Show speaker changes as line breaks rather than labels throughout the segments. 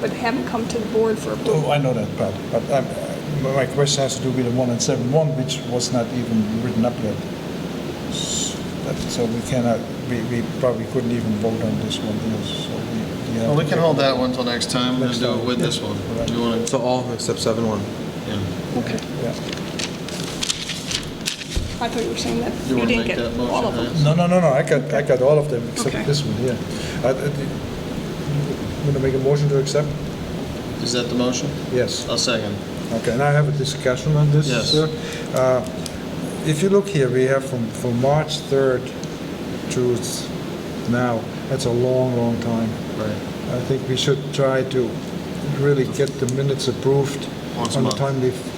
but haven't come to the board for approval.
Oh, I know that part, but um, uh, my question has to do with the one and seven one, which was not even written up yet. S- that- So we cannot, we, we probably couldn't even vote on this one here, so we.
Well, we can hold that one till next time and
Next
do
time.
it with this one. Do you want to?
So all except seven one.
Okay.
Yeah.
I thought you were saying that
You
you
wanna
didn't
make
get
that
all of
motion,
them.
Hans?
No, no, no, no, I got, I got all of them
Okay.
except this one here. I- I- You want to make a motion to accept?
Is that the motion?
Yes.
I'll second.
Okay, and I have a discussion on this,
Yes.
sir. Uh, If you look here, we have from, from March 3rd to s- now, that's a long, long time.
Right.
I think we should try to really get the minutes approved
Once a
on a
month.
timely, f-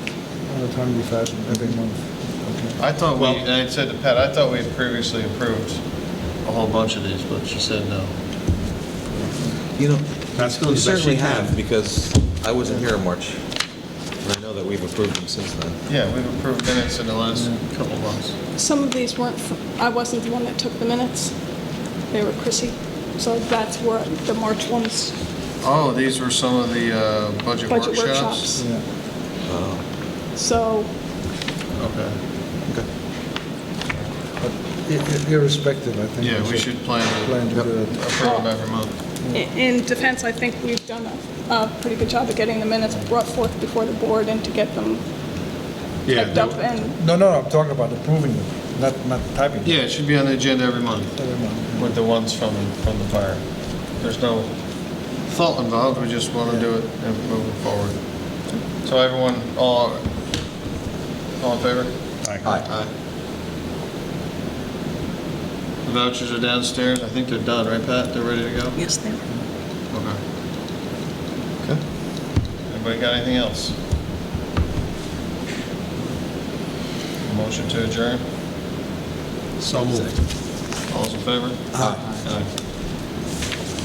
on a timely fashion every month. Okay.
I thought we, and I said to Pat, I thought we had previously approved a whole bunch of these, but she said no.
You know,
That's good,
you
but
certainly
she can.
have, because I wasn't here in March. And I know that we've approved them since then.
Yeah, we've approved minutes in the last couple of months.
Some of these weren't, fr- I wasn't the one that took the minutes. They were Chrissy. So that's where the March ones,
Oh, these were some of the uh, budget
budget workshops.
workshops?
Yeah.
So
Okay.
I- i- Irrespective, I think.
Yeah, we should plan
Plan
to
to do it.
approve them every month.
i- in defense, I think we've done a, a pretty good job of getting the minutes brought forth before the board and to get them
Yeah,
typed up
that-
and
No, no, I'm talking about approving them, not, not typing.
Yeah, it should be on the agenda every month.
Every month.
with the ones from, from the fire. There's no fault involved, we just want to do it and move it forward. So everyone, all, all in favor? Aye. The vouchers are downstairs, I think they're done, right, Pat? They're ready to go?
Yes, they are.
Okay. Okay. Anybody got anything else? Motion to adjourn? So moved. All's in favor? Aye.